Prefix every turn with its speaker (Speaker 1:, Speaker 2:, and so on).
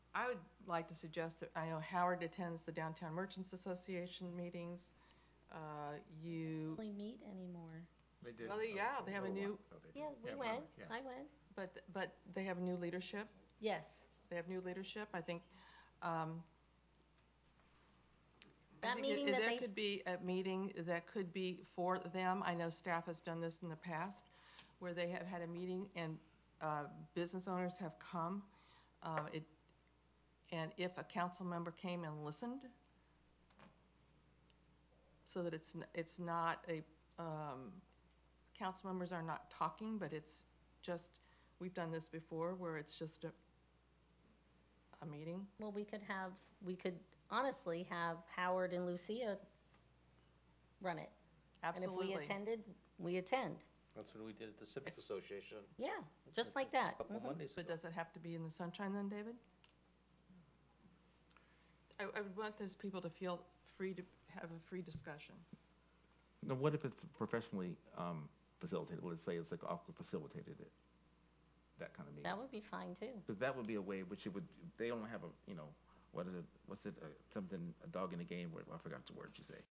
Speaker 1: like to suggest that, I know Howard attends the Downtown Merchants Association meetings. Uh, You,
Speaker 2: really meet anymore.
Speaker 3: They did. Oh,
Speaker 1: Well, they-
Speaker 3: a-
Speaker 1: yeah, they have a
Speaker 3: little
Speaker 1: new-
Speaker 3: while ago, they
Speaker 2: Yeah,
Speaker 3: did.
Speaker 2: we
Speaker 3: Yeah,
Speaker 2: went,
Speaker 3: yeah.
Speaker 2: I went,
Speaker 1: but, but they have new leadership.
Speaker 2: yes.
Speaker 1: They have new leadership, I think. um, I
Speaker 2: That
Speaker 1: think it-
Speaker 2: meeting that
Speaker 1: There
Speaker 2: they,
Speaker 1: could be a meeting that could be for them. I know staff has done this in the past, where they have had a meeting and uh, business owners have come. Uh, It, and if a council member came and listened, so that it's, n- it's not a, um, council members are not talking, but it's just, we've done this before, where it's just a, a meeting.
Speaker 2: well, we could have, we could honestly have Howard and Lucia run it. And if
Speaker 1: Absolutely.
Speaker 2: we attended, we attend,
Speaker 4: That's what we did at the Civic Association
Speaker 2: yeah, just like that.
Speaker 4: a couple
Speaker 2: Mhm.
Speaker 4: Mondays
Speaker 1: But
Speaker 4: ago.
Speaker 1: does it have to be in the sunshine then, David? I, I would want those people to feel free to have a free discussion.
Speaker 5: Now, what if it's professionally um, facilitated? Let's say it's like Aqua facilitated it, that kind of meeting.
Speaker 2: That would be fine too.
Speaker 5: Because that would be a way which it would, they don't have a, you know, what is it, what's it, uh, something, a dog in the game, where, I forgot the word you say.